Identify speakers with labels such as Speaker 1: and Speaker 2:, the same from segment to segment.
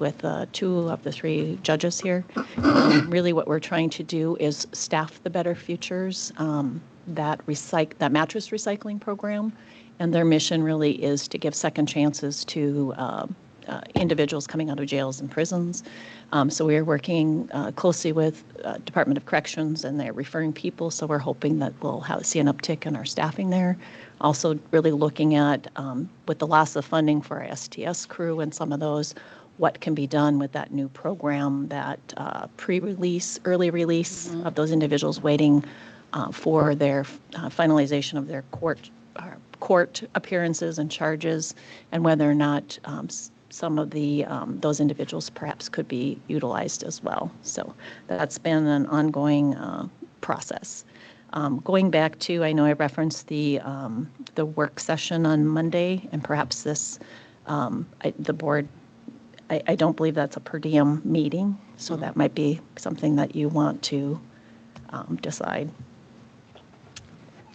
Speaker 1: with uh, two of the three judges here. Um, Really, what we're trying to do is staff the Better Futures, um, that recyc, that mattress recycling program. And their mission really is to give second chances to um, uh, individuals coming out of jails and prisons. Um, So we are working uh, closely with uh, Department of Corrections, and they're referring people, so we're hoping that we'll have, see an uptick in our staffing there. Also, really looking at, um, with the loss of funding for our STS crew and some of those, what can be done with that new program, that uh, pre-release, early release of those individuals waiting uh, for their uh, finalization of their court, uh, court appearances and charges, and whether or not um, s- some of the, um, those individuals perhaps could be utilized as well. So that's been an ongoing uh, process. Um, Going back to, I know I referenced the, um, the work session on Monday, and perhaps this, um, I- the board I, I don't believe that's a per diem meeting, so that might be something that you want to um, decide.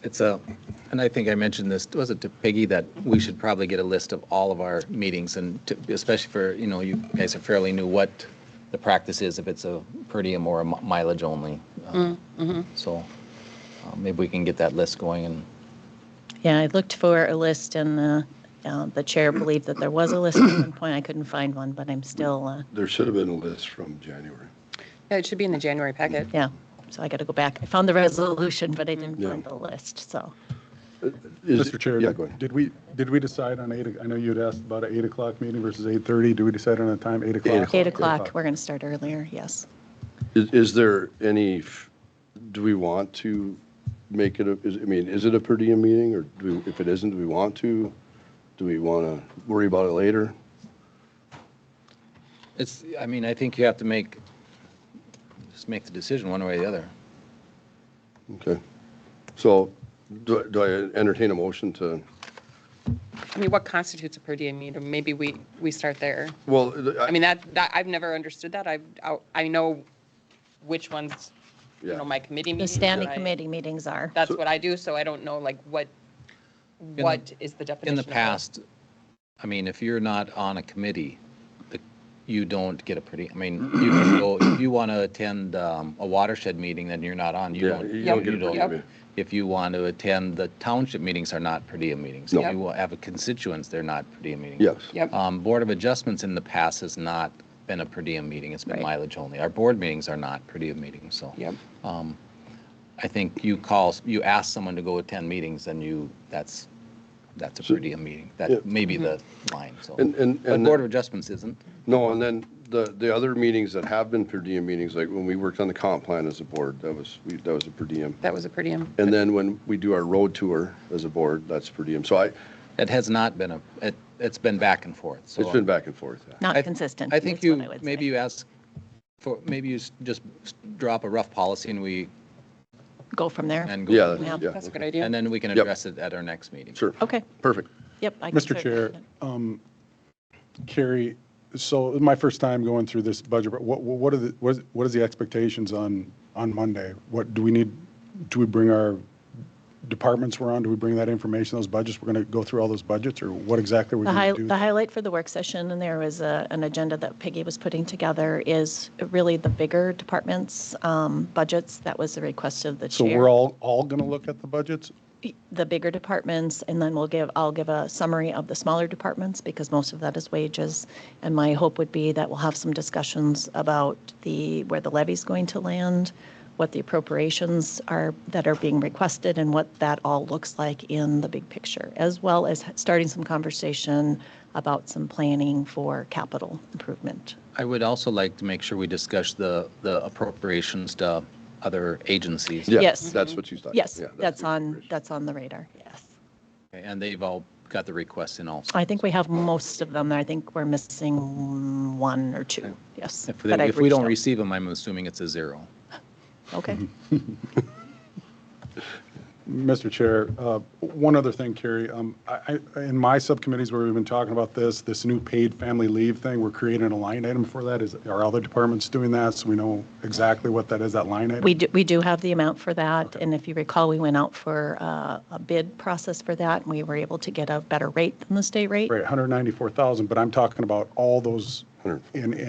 Speaker 2: It's a, and I think I mentioned this, was it to Peggy, that we should probably get a list of all of our meetings and to- especially for, you know, you guys are fairly new, what the practice is, if it's a per diem or a mi- mileage only. Um, So uh, maybe we can get that list going and
Speaker 1: Yeah, I looked for a list and uh, uh, the chair believed that there was a list at one point. I couldn't find one, but I'm still, uh,
Speaker 3: There should have been a list from January.
Speaker 4: Yeah, it should be in the January packet.
Speaker 1: yeah, so I got to go back. I found the resolution, but I didn't
Speaker 3: Yeah.
Speaker 1: find the list, so.
Speaker 3: Is-
Speaker 5: Mr. Chair,
Speaker 3: Yeah, go ahead.
Speaker 5: did we, did we decide on eight, I know you'd asked about an eight o'clock meeting versus eight thirty, do we decide on a time, eight o'clock?
Speaker 1: Eight o'clock, we're going to start earlier, yes.
Speaker 3: Is, is there any, f- do we want to make it, a? is- I mean, is it a per diem meeting or do, we- if it isn't, do we want to? Do we want to worry about it later?
Speaker 2: it's, I mean, I think you have to make, just make the decision one way or the other.
Speaker 3: Okay. So do, I- do I entertain a motion to,
Speaker 4: I mean, what constitutes a per diem meeting? Maybe we, we start there.
Speaker 3: well,
Speaker 4: I mean, that, that, I've never understood that. I've, I- I know which ones, you
Speaker 3: Yeah.
Speaker 4: know, my committee
Speaker 1: The
Speaker 4: meetings.
Speaker 1: standing
Speaker 4: and I-
Speaker 1: committee meetings are.
Speaker 4: That's what I do, so I don't know like what,
Speaker 2: the-
Speaker 4: what is the definition.
Speaker 2: In the
Speaker 4: of that?
Speaker 2: past, I mean, if you're not on a committee, the- you don't get a pretty, I mean, you can go, if you want to attend um, a watershed meeting, then you're not on, you
Speaker 3: Yeah,
Speaker 2: don't.
Speaker 3: you
Speaker 4: don't get
Speaker 2: you
Speaker 4: a per diem. Yep.
Speaker 2: If you want to attend, the township meetings are not per diem meetings. If
Speaker 4: No.
Speaker 2: you have a constituents, they're not per diem meetings.
Speaker 3: yes.
Speaker 4: Yep.
Speaker 2: Um, Board of Adjustments in the past has not been a per diem meeting, it's been
Speaker 1: Right.
Speaker 2: mileage only. Our board meetings are not per diem meetings, so.
Speaker 4: Yep.
Speaker 2: I think you call, you ask someone to go attend meetings, and you, that's, that's a per diem meeting.
Speaker 3: Yeah.
Speaker 2: That may be the
Speaker 1: Mm-hmm.
Speaker 2: line, so.
Speaker 3: And- and-
Speaker 2: But
Speaker 3: and-
Speaker 2: Board of Adjustments isn't.
Speaker 3: No, and then the, the other meetings that have been per diem meetings, like when we worked on the comp plan as a board, that was, we that was a per diem.
Speaker 4: That was a per diem.
Speaker 3: And then when we do our road tour as a board, that's per diem. So I,
Speaker 2: It has not been a, it, it's been back and forth, so.
Speaker 3: it's been back and forth. yeah.
Speaker 2: I-
Speaker 1: Not consistent.
Speaker 2: I think
Speaker 1: is what
Speaker 2: you,
Speaker 1: would
Speaker 2: maybe
Speaker 1: say.
Speaker 2: you ask for, maybe you s- just s- drop a rough policy and we,
Speaker 1: Go from there.
Speaker 2: and
Speaker 3: Yeah,
Speaker 2: go.
Speaker 3: that's- yeah.
Speaker 4: That's a good
Speaker 3: okay.
Speaker 4: idea.
Speaker 2: And then we can
Speaker 3: Yep.
Speaker 2: address it at our next meeting.
Speaker 3: Sure.
Speaker 1: Okay,
Speaker 3: Perfect.
Speaker 1: yep. I can
Speaker 5: Mr.
Speaker 1: certainly
Speaker 5: Chair,
Speaker 1: do that.
Speaker 5: um, Carrie, so this is my first time going through this budget, but what, what are the, what is- what is the expectations on, on Monday? What, do we need, do we bring our departments we're on, do we bring that information, those budgets, we're going to go through all those budgets, or what exactly are we
Speaker 1: The high,
Speaker 5: going to do?
Speaker 1: the highlight for the work session, and there was a, an agenda that Peggy was putting together, is really the bigger departments' um, budgets. That was the request of the
Speaker 5: So
Speaker 1: chair.
Speaker 5: we're all, all going to look at the budgets?
Speaker 1: The bigger departments, and then we'll give, I'll give a summary of the smaller departments, because most of that is wages. And my hope would be that we'll have some discussions about the, where the levy's going to land, what the appropriations are, that are being requested, and what that all looks like in the big picture, as well as starting some conversation about some planning for capital improvement.
Speaker 2: I would also like to make sure we discuss the, the appropriations to other agencies.
Speaker 3: Yeah,
Speaker 1: Yes.
Speaker 3: That's what you thought.
Speaker 1: Yes,
Speaker 3: Uh, Yeah,
Speaker 1: that's
Speaker 3: the
Speaker 1: on,
Speaker 3: configuration.
Speaker 1: that's on the radar, yes.
Speaker 2: And they've all got the requests in also.
Speaker 1: I think we have most of them. I think we're missing one or two, yes.
Speaker 2: If,
Speaker 1: but
Speaker 2: they-
Speaker 1: I've
Speaker 2: if we don't
Speaker 1: reached
Speaker 2: receive them, I'm assuming it's a zero.
Speaker 1: out. Okay,
Speaker 5: Mr. Chair, uh, one other thing, Carrie, um, I, I- in my subcommittees where we've been talking about this, this new paid family leave thing, we're creating a line item for that. Is, are other departments doing that? So we know exactly what that is, that line item?
Speaker 1: We do, we do have the amount for that, and if you recall, we went out for uh, a bid process for that, and we were able to get a better rate than the state rate.
Speaker 5: Right, 194,000, but I'm talking about all those in,